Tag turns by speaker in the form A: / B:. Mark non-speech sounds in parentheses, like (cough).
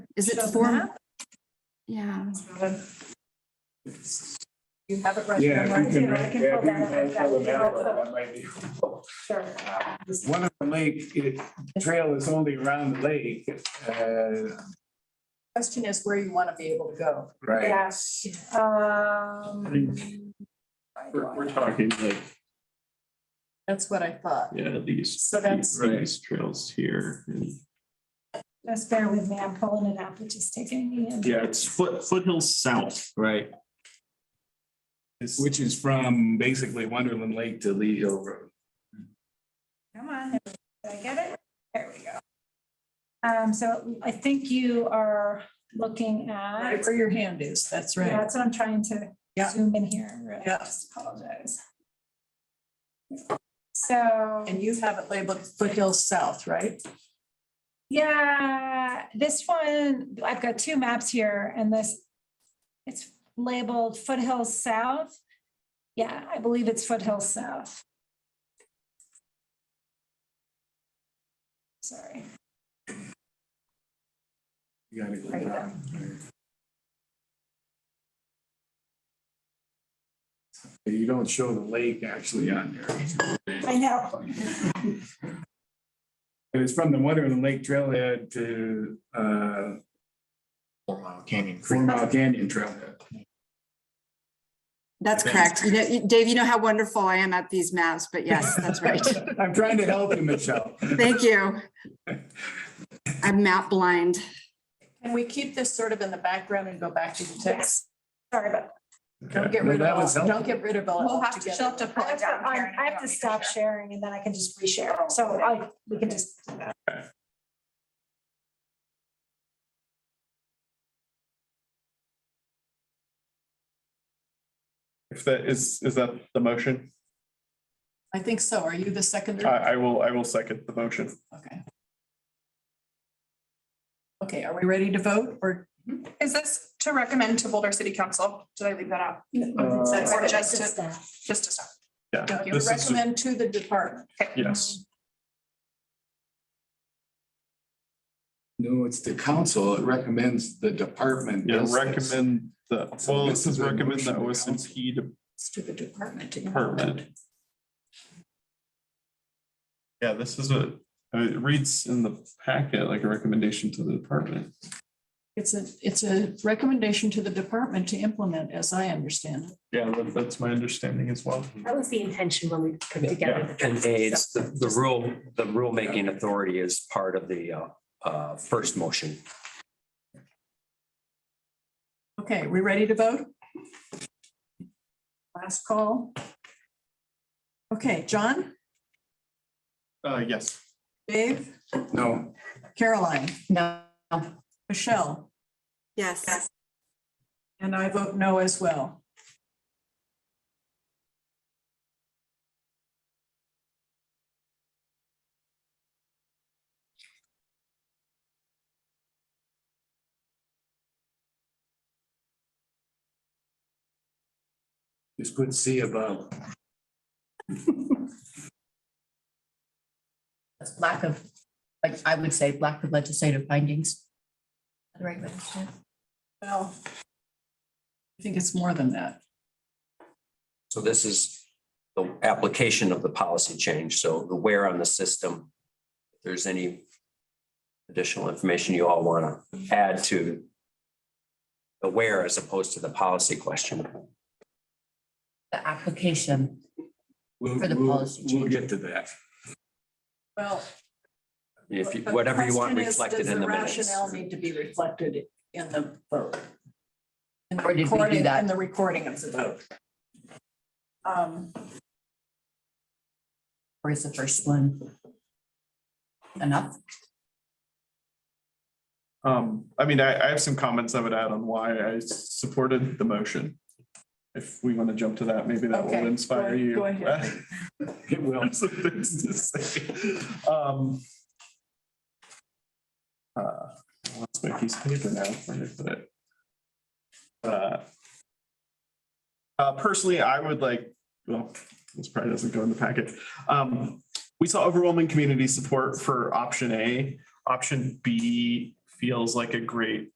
A: Is it
B: Shows
A: form?
B: map.
A: Yeah.
B: You have it right.
C: Yeah,
B: there,
C: if you can,
B: right?
C: yeah, if you
B: pull that
C: can
B: up.
C: tell them
B: Yeah,
C: that,
B: pull that up.
C: that might be.
B: Sure. Uh, this-
C: One of the lake, it, trail is only around the lake, uh,
B: Question is where you want to be able to go.
C: right?
B: Yeah. Um.
D: We're, we're talking like,
B: That's what I thought.
D: yeah, these,
B: So that's,
D: these trails here and.
E: Just bear with me, I'm pulling it up, which is taking me in.
D: Yeah, it's foot, foothills south. Right.
C: Which is from basically Wonderland Lake to Lee Hill Road.
E: Come on, did I get it? There we go. Um, so I think you are looking
B: right
E: at,
B: where your hand is, that's right.
E: that's what I'm trying to
B: Yeah.
E: zoom in here, really,
B: Yeah.
E: I just apologize. So,
B: And you have it labeled foothills south, right?
E: yeah, this one, I've got two maps here and this, it's labeled foothills south. Yeah, I believe it's foothills south. Sorry.
C: You gotta go down. You don't show the lake actually on there.
E: I know.
C: It was from the Wonderland Lake Trailhead to, uh,
F: Four Mile Canyon Creek.
C: Four Mile Canyon Trailhead.
A: That's correct. You know, you- Dave, you know how wonderful I am at these maps, but yes, that's (laughs) right.
C: (laughs) I'm trying to help you,
G: (laughs)
C: Michelle.
A: Thank you. I'm map blind.
B: Can we keep this sort of in the background and go back to the text?
E: Sorry about,
B: Don't get
C: No,
B: rid
C: that
B: of
C: was
B: it. all. Don't
C: helpful.
B: get rid of it. all
H: We'll have to, she'll have
B: altogether.
H: to pull
E: I have
H: it
E: to,
H: down. Karen,
E: un- I have
H: if
E: to
H: you
E: stop
H: want me
E: sharing and then I can just reshare. So I, we can just. do that.
D: If that is, is that the motion?
B: I think so. Are you the second?
D: I, I will, I will second the motion.
B: Okay. Okay, are we ready to vote or?
H: to. Is this to recommend to Boulder City Council? Did I leave that out?
B: That's
H: Or
B: it.
H: just to, just to stop?
D: Uh, Yeah.
B: No, You
D: this is-
B: recommend to the department.
D: Yes,
C: No, it's the council. It recommends the department.
D: yeah,
C: does this.
D: recommend the, well, this is
C: a
D: recommend the
C: motion to
D: OSMP
B: It's to the department. to
D: department. Yeah, this is a, I mean, it reads in the packet like a recommendation to the department.
B: It's a, it's a recommendation to the department to implement, as I understand it.
D: Yeah, that- that's my understanding as well.
I: That was the intention when we put together the.
J: And it's the, the rule, the rulemaking authority is part of the uh, uh, first motion.
B: Okay, we ready to vote? Last call. Okay, John,
D: Uh, yes.
B: Dave,
C: No.
B: Caroline,
A: No.
B: Michelle,
A: Yes.
B: and I vote no as well.
C: Just put C above.
G: That's lack of, like, I would say lack of legislative findings. The right way to say it.
B: Well, I think it's more than that.
J: So this is the application of the policy change. So the where on the system. If there's any additional information you all want to add to the where as opposed to the policy question.
G: The application.
C: We'll,
G: For the
C: we'll,
G: policy
C: we'll get to that.
B: Well.
J: If you,
B: the
J: whatever you want
B: question is,
J: reflected
B: does
J: in the minutes.
B: Rationale need to be reflected in the vote. In the
G: Or did we do
B: recording-
G: that?
B: In the recording of the vote. Um,
G: Or is the first one enough?
D: Um, I mean, I, I have some comments I would add on why I supported the motion. If we want to jump to that, maybe that
B: Okay,
D: will
B: go-
D: inspire you.
B: go ahead.
D: (laughs)
C: It will.
D: Some things to say. Um, uh, What's my piece of paper now? Where did I put it? Uh, uh, Personally, I would like, well, this probably doesn't go in the packet. Um, We saw overwhelming community support for option A option B feels like a great